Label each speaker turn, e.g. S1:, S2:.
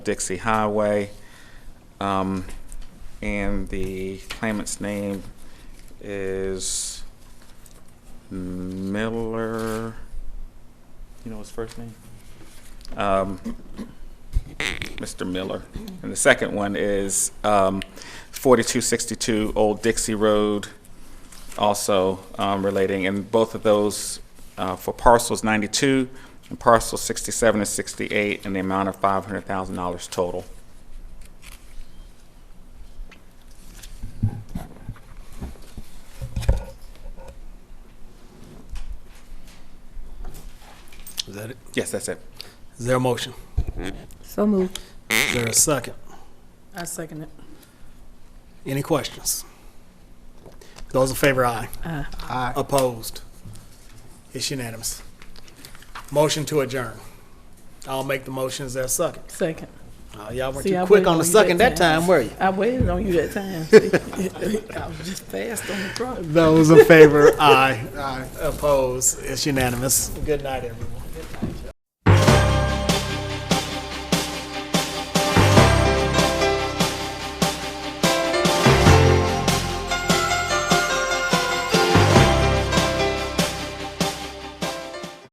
S1: Dixie Highway. Um, and the claimant's name is Miller. You know his first name? Um, Mr. Miller. And the second one is, um, forty-two sixty-two Old Dixie Road, also, um, relating, and both of those, uh, for parcels ninety-two and parcel sixty-seven and sixty-eight, and the amount of five hundred thousand dollars total.
S2: Is that it?
S1: Yes, that's it.
S2: Is there a motion?
S3: So moved.
S2: Is there a second?
S3: I second it.
S2: Any questions? Those in favor, aye.
S3: Aye.
S2: Opposed? It's unanimous. Motion to adjourn. I'll make the motion. Is there a second?
S3: Second.
S2: Oh, y'all weren't
S3: See, I
S2: too quick
S3: waited
S2: on the
S3: you
S2: second that time, were you?
S3: I waited on you that time. see? I was just fast on the draw.
S2: Those in favor, aye. Aye. Opposed? It's unanimous. Good night, everyone.